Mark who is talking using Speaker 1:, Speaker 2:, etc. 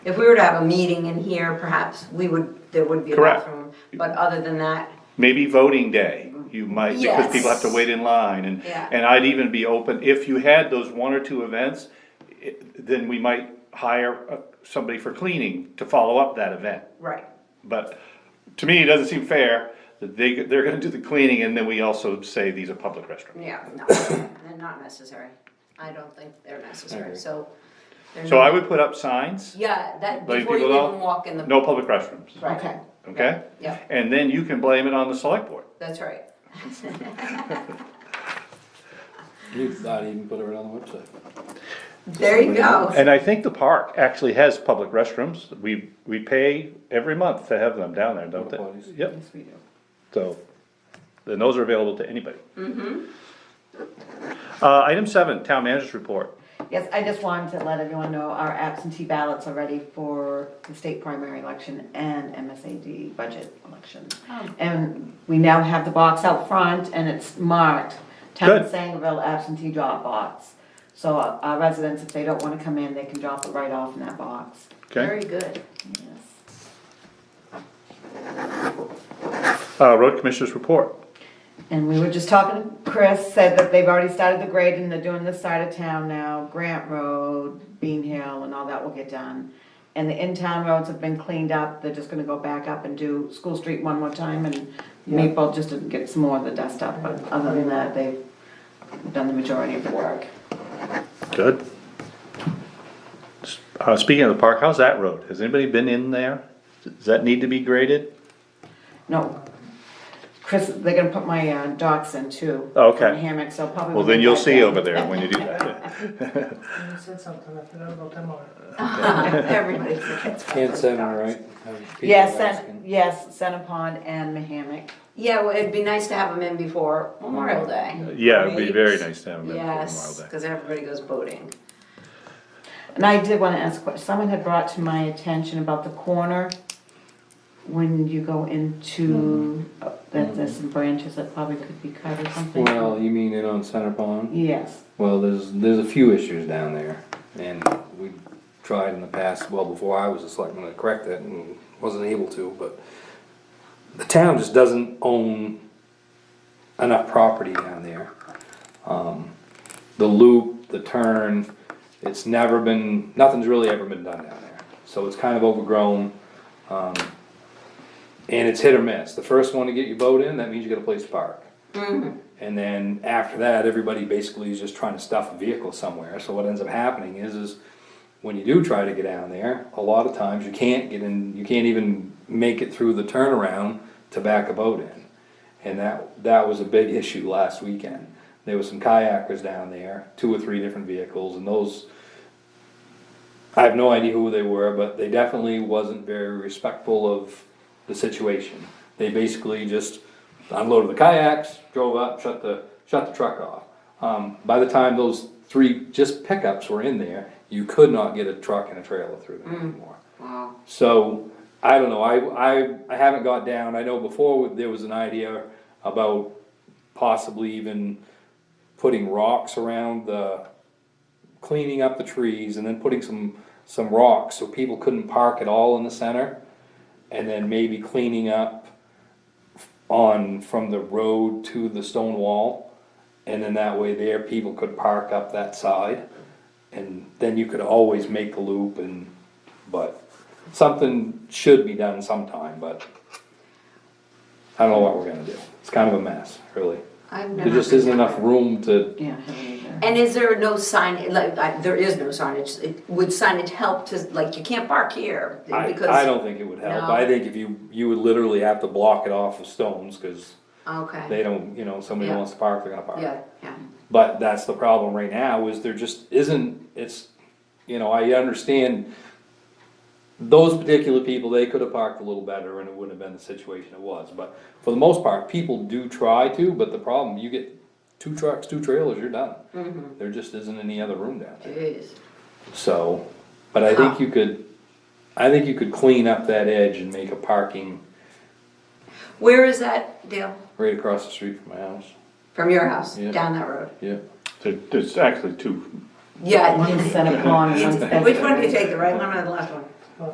Speaker 1: If we were to have a meeting in here, perhaps we would, there would be a
Speaker 2: Correct.
Speaker 1: bathroom, but other than that,
Speaker 2: Maybe voting day, you might, because people have to
Speaker 1: Yes.
Speaker 2: wait in line, and,
Speaker 1: Yeah.
Speaker 2: and I'd even be open, if you had those one or two events, i- then we might hire uh, somebody for cleaning to follow up that event.
Speaker 1: right,
Speaker 2: But to me, it doesn't seem fair that they, they're gonna do the cleaning, and then we also say these are public restrooms.
Speaker 1: yeah, no, they're not necessary. I don't think they're necessary, so. they're
Speaker 2: So
Speaker 1: not-
Speaker 2: I would put up signs,
Speaker 1: Yeah, that,
Speaker 2: Letting
Speaker 1: before you
Speaker 2: people know,
Speaker 1: even walk in the.
Speaker 2: no public restrooms,
Speaker 1: Right.
Speaker 3: Okay.
Speaker 2: okay?
Speaker 1: Yeah,
Speaker 2: And then you can blame it on the select board.
Speaker 1: that's right.
Speaker 4: You'd not even put it on the website.
Speaker 1: There you go.
Speaker 2: And I think the park actually has public restrooms, we, we pay every month to have them down there, don't
Speaker 4: Porta potties.
Speaker 2: they? Yep. So, then those are available to anybody.
Speaker 1: Mm-hmm.
Speaker 2: Uh, item seven, town manager's report.
Speaker 3: Yes, I just wanted to let everyone know our absentee ballots are ready for the state primary election and MSAD budget election. And we now have the box out front and it's marked Town
Speaker 2: Good.
Speaker 3: of Sangerville absentee drop box. So our our residents, if they don't wanna come in, they can drop it right off in that box.
Speaker 2: Okay,
Speaker 1: Very good.
Speaker 3: Yes.
Speaker 2: uh, road commissioner's report.
Speaker 3: And we were just talking, Chris said that they've already started the grade and they're doing this side of town now, Grant Road, Bean Hill and all that will get done. And the in-town roads have been cleaned up, they're just gonna go back up and do School Street one more time and Maple just to get some more of the dust up, but other than that, they've done the majority of the work.
Speaker 2: Good. S- Uh, speaking of the park, how's that road? Has anybody been in there? Does that need to be graded?
Speaker 3: No, Chris, they're gonna put my uh, docks in too.
Speaker 2: Okay.
Speaker 3: and Hammocks, so probably.
Speaker 2: Well,
Speaker 3: we'll
Speaker 2: then
Speaker 3: be
Speaker 2: you'll
Speaker 3: back
Speaker 2: see
Speaker 3: down.
Speaker 2: over there when you do that.
Speaker 5: You said something, I forgot about them all.
Speaker 1: Everybody forgets. about
Speaker 4: And
Speaker 1: those
Speaker 4: salmon,
Speaker 1: dogs.
Speaker 4: right? Have people
Speaker 3: Yes, Sen-
Speaker 4: asking.
Speaker 3: yes, Centipond and Mahammock.
Speaker 1: Yeah, well, it'd be nice to have them in before Memorial Day.
Speaker 2: Mm. Yeah, it'd be very
Speaker 1: Right?
Speaker 2: nice to have them in for Memorial
Speaker 1: Yes,
Speaker 2: Day.
Speaker 1: because everybody goes boating.
Speaker 3: And I did wanna ask, a question. someone had brought to my attention about the corner, when you go into, uh, that there's some branches that probably could be cut or something.
Speaker 4: Well, you mean in on Center Pond?
Speaker 3: Yes,
Speaker 4: Well, there's, there's a few issues down there, and we tried in the past, well, before I was a selectman, to correct it, and wasn't able to, but the town just doesn't own enough property down there. Um, the loop, the turn, it's never been, nothing's really ever been done down there, so it's kind of overgrown. Um, and it's hit or miss, the first one to get your boat in, that means you got a place to park. And then after that, everybody basically is just trying to stuff a vehicle somewhere. So what ends up happening is, is when you do try to get down there, a lot of times you can't get in, you can't even make it through the turnaround to back a boat in. And that, that was a big issue last weekend. There was some kayakers down there, two or three different vehicles, and those, I have no idea who they were, but they definitely wasn't very respectful of the situation. They basically just unloaded the kayaks, drove up, shut the, shut the truck off. Um, by the time those three just pickups were in there, you could not get a truck and a trailer through them anymore.
Speaker 1: Wow.
Speaker 4: So, I don't know, I, I, I haven't got down, I know before there was an idea about possibly even putting rocks around the, cleaning up the trees and then putting some, some rocks so people couldn't park at all in the center. And then maybe cleaning up on, from the road to the stone wall. And then that way there, people could park up that side. And then you could always make a loop and, but something should be done sometime, but I don't know what we're gonna do. It's kind of a mess, really.
Speaker 1: I've
Speaker 4: There
Speaker 1: never.
Speaker 4: just
Speaker 1: been
Speaker 4: isn't
Speaker 1: there.
Speaker 4: enough room to
Speaker 3: yeah, I haven't either.
Speaker 1: And is there no sign, like, I- there is no signage, It- would signage help to, like, you can't park here?
Speaker 4: I,
Speaker 1: because-
Speaker 4: I don't think it would help,
Speaker 1: No.
Speaker 4: I think if you, you would literally have to block it off with stones, cause they
Speaker 1: Okay,
Speaker 4: don't, you know, somebody
Speaker 1: Yeah.
Speaker 4: wants to park, they're gonna park.
Speaker 1: yeah, yeah,
Speaker 4: But that's the problem right now, is there just isn't, it's, you know, I understand those particular people, they could have parked a little better and it wouldn't have been the situation it was, but for the most part, people do try to, but the problem, you get two trucks, two trailers, you're done.
Speaker 1: Mm-hmm.
Speaker 4: There just isn't any other room down there.
Speaker 1: jeez,
Speaker 4: So, but I think you could, I think you could clean up that edge and make a parking
Speaker 1: where is that, Dale,
Speaker 4: right across the street from my house.
Speaker 1: from your house,
Speaker 4: Yeah.
Speaker 1: down that road?
Speaker 4: Yeah.
Speaker 2: There- There's actually two,
Speaker 1: Yeah,
Speaker 3: One set of pond and one set of.
Speaker 1: which one do you take, the right one or the left one?